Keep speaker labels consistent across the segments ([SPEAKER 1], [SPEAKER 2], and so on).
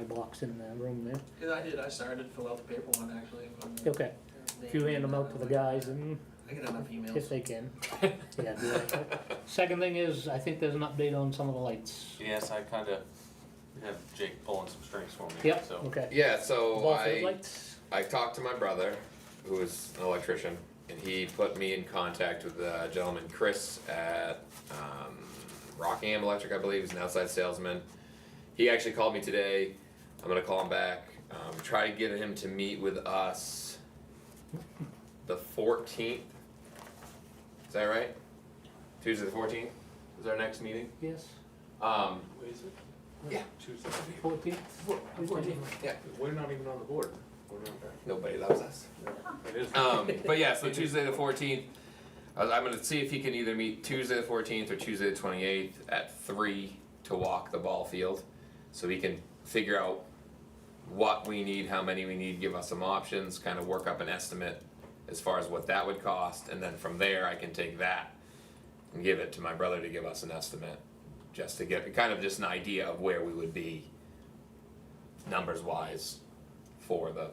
[SPEAKER 1] box in the room there.
[SPEAKER 2] Cause I did, I started to fill out the paper one actually. from the-
[SPEAKER 1] Okay, if you hand them out to the guys and
[SPEAKER 2] I get enough
[SPEAKER 1] if
[SPEAKER 2] emails.
[SPEAKER 1] they can. Yeah, do that. Second thing is, I think there's an update on some of the lights.
[SPEAKER 3] Yes, I kind of have Jake pulling some strings for me.
[SPEAKER 1] Yep,
[SPEAKER 3] So
[SPEAKER 1] okay.
[SPEAKER 4] Yeah, so
[SPEAKER 1] Ball field
[SPEAKER 4] I,
[SPEAKER 1] lights?
[SPEAKER 4] I talked to my brother, who is an electrician, and he put me in contact with a gentleman, Chris, at um, Rockingham Electric, I believe. He's an outside salesman. He actually called me today. I'm going to call him back, um, try to get him to meet with us the 14th. Is that right? Tuesday the 14th is our next meeting.
[SPEAKER 1] Yes,
[SPEAKER 4] Um,
[SPEAKER 3] What is it?
[SPEAKER 4] Yeah.
[SPEAKER 3] Tuesday.
[SPEAKER 1] fourteenth?
[SPEAKER 4] yeah,
[SPEAKER 3] We're not even on the board. We're
[SPEAKER 4] nobody loves us.
[SPEAKER 3] not. It is.
[SPEAKER 4] Um, but yeah, so Tuesday the fourteenth, uh, I'm gonna see if he can either meet Tuesday the fourteenth or Tuesday the twenty eighth at three to walk the ball field, so we can figure out what we need, how many we need, give us some options, kind of work up an estimate as far as what that would cost, and then from there I can take that and give it to my brother to give us an estimate, just to get kind of just an idea of where we would be numbers wise for the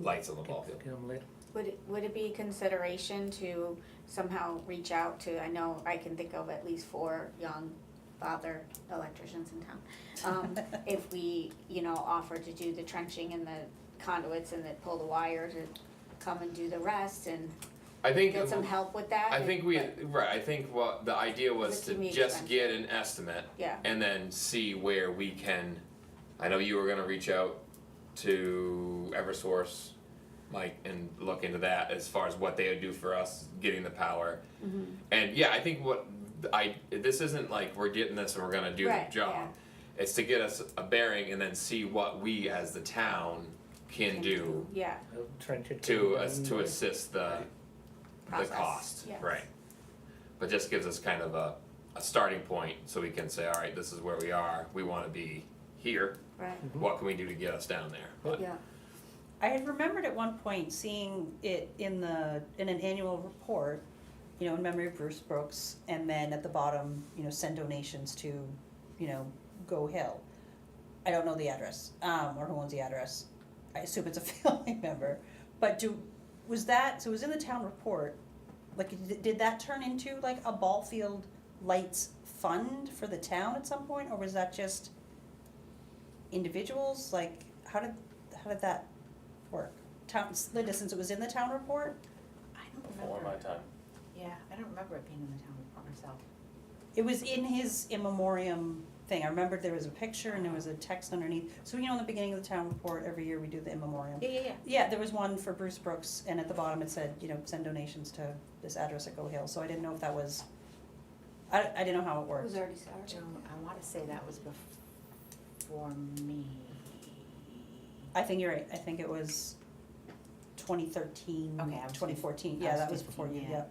[SPEAKER 4] lights on the ball field.
[SPEAKER 1] Get 'em lit.
[SPEAKER 5] Would it, would it be consideration to somehow reach out to, I know I can think of at least four young father electricians in town. Um, if we, you know, offer to do the trenching and the conduits and then pull the wire to come and do the rest and
[SPEAKER 4] I think
[SPEAKER 5] get some help with that.
[SPEAKER 4] I think we
[SPEAKER 5] but-
[SPEAKER 4] right. I think what the idea was
[SPEAKER 5] It's a
[SPEAKER 4] to
[SPEAKER 5] team
[SPEAKER 4] just
[SPEAKER 5] expense.
[SPEAKER 4] get an estimate
[SPEAKER 5] Yeah,
[SPEAKER 4] and then see where we can. I know you were gonna reach out to EverSource, Mike, and look into that as far as what they would do for us getting the power.
[SPEAKER 5] Mhm.
[SPEAKER 4] And yeah, I think what I this isn't like we're getting this and we're gonna do
[SPEAKER 5] Right,
[SPEAKER 4] the job.
[SPEAKER 5] yeah.
[SPEAKER 4] It's to get us a bearing and then see what we as the town can,
[SPEAKER 5] Can
[SPEAKER 4] do
[SPEAKER 5] yeah,
[SPEAKER 1] I'll Trench it.
[SPEAKER 4] to
[SPEAKER 1] and
[SPEAKER 4] us to
[SPEAKER 1] then-
[SPEAKER 4] assist the the
[SPEAKER 5] Process,
[SPEAKER 4] cost,
[SPEAKER 5] yes.
[SPEAKER 4] right? But just gives us kind of a, a starting point, so we can say, all right, this is where we are, we wanna be here,
[SPEAKER 5] right,
[SPEAKER 4] what can we do to get us down there? But
[SPEAKER 5] yeah,
[SPEAKER 6] I had remembered at one point seeing it in the, in an annual report, you know, in memory of Bruce Brooks, and then at the bottom, you know, send donations to, you know, Go Hill. I don't know the address, um, or who owns the address, I assume it's a family member, but do, was that, so it was in the town report, like, did- did that turn into like a ball field lights fund for the town at some point, or was that just individuals, like, how did, how did that work? Town, Linda, since it was in the town report,
[SPEAKER 7] I don't
[SPEAKER 3] Before my
[SPEAKER 7] remember,
[SPEAKER 3] time.
[SPEAKER 7] yeah, I don't remember it being in the town report myself.
[SPEAKER 6] it was in his in memoriam thing, I remembered there was a picture and there was a text underneath, so you know, in the beginning of the town report, every year we do the in memoriam.
[SPEAKER 7] Yeah, yeah, yeah.
[SPEAKER 6] Yeah, there was one for Bruce Brooks, and at the bottom it said, you know, send donations to this address at Go Hill, so I didn't know if that was, I, I didn't know how it
[SPEAKER 5] it
[SPEAKER 6] worked.
[SPEAKER 5] was already started.
[SPEAKER 7] Joan, I wanna say that was before me.
[SPEAKER 6] I think you're right, I think it was 2013,
[SPEAKER 7] Okay, I was
[SPEAKER 6] 2014.
[SPEAKER 7] I
[SPEAKER 6] yeah,
[SPEAKER 7] was
[SPEAKER 6] that was before you,
[SPEAKER 7] 15, yeah.
[SPEAKER 6] yeah.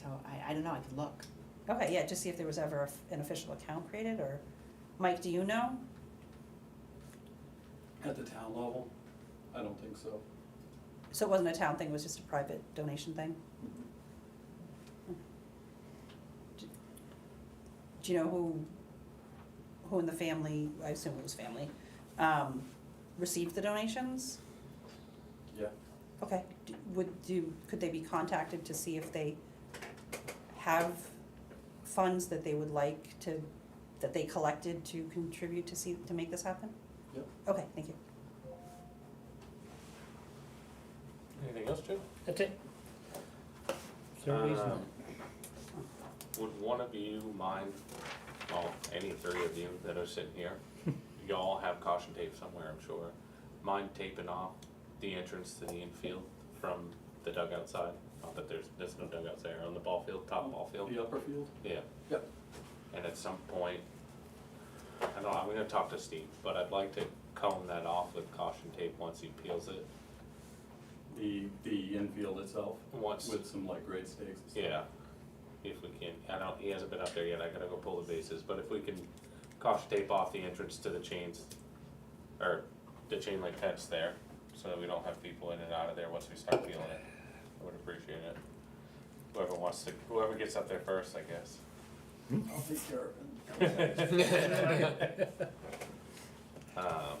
[SPEAKER 7] So I, I don't know, I could look.
[SPEAKER 6] Okay, yeah, just see if there was ever a f- an official account created, or, Mike, do you know?
[SPEAKER 8] At the town level? I don't think so.
[SPEAKER 6] So it wasn't a town thing, it was just a private donation thing?
[SPEAKER 8] Mm-hmm.
[SPEAKER 6] Do do you know who, who in the family, I assume it was family, um, received the donations?
[SPEAKER 8] Yeah.
[SPEAKER 6] Okay, d- would, do, could they be contacted to see if they have funds that they would like to, that they collected to contribute to see, to make this happen?
[SPEAKER 8] Yep.
[SPEAKER 6] Okay, thank you.
[SPEAKER 3] Anything else, Jim?
[SPEAKER 1] That's it. Is there a
[SPEAKER 4] Uh,
[SPEAKER 1] reason?
[SPEAKER 3] Um, Would one of you mind, well, any three of you that are sitting here, y'all have caution tape somewhere, I'm sure. Mind taping off the entrance to the infield from the dugout side? Not that there's, there's no dugouts there, on the ball field, top ball field.
[SPEAKER 8] The upper field?
[SPEAKER 3] Yeah.
[SPEAKER 8] Yep.
[SPEAKER 3] And at some point, I don't know, I'm gonna talk to Steve, but I'd like to comb that off with caution tape once he peels it.
[SPEAKER 8] The, the infield itself
[SPEAKER 3] Once,
[SPEAKER 8] with some like grade stakes and stuff?
[SPEAKER 3] yeah, if we can, I don't, he hasn't been up there yet, I gotta go pull the bases, but if we can caution tape off the entrance to the chains, or the chain link fence there, so that we don't have people in and out of there once we start peeling it, I would appreciate it. Whoever wants to, whoever gets up there first, I guess.
[SPEAKER 8] I'll take care of it.
[SPEAKER 3] Um,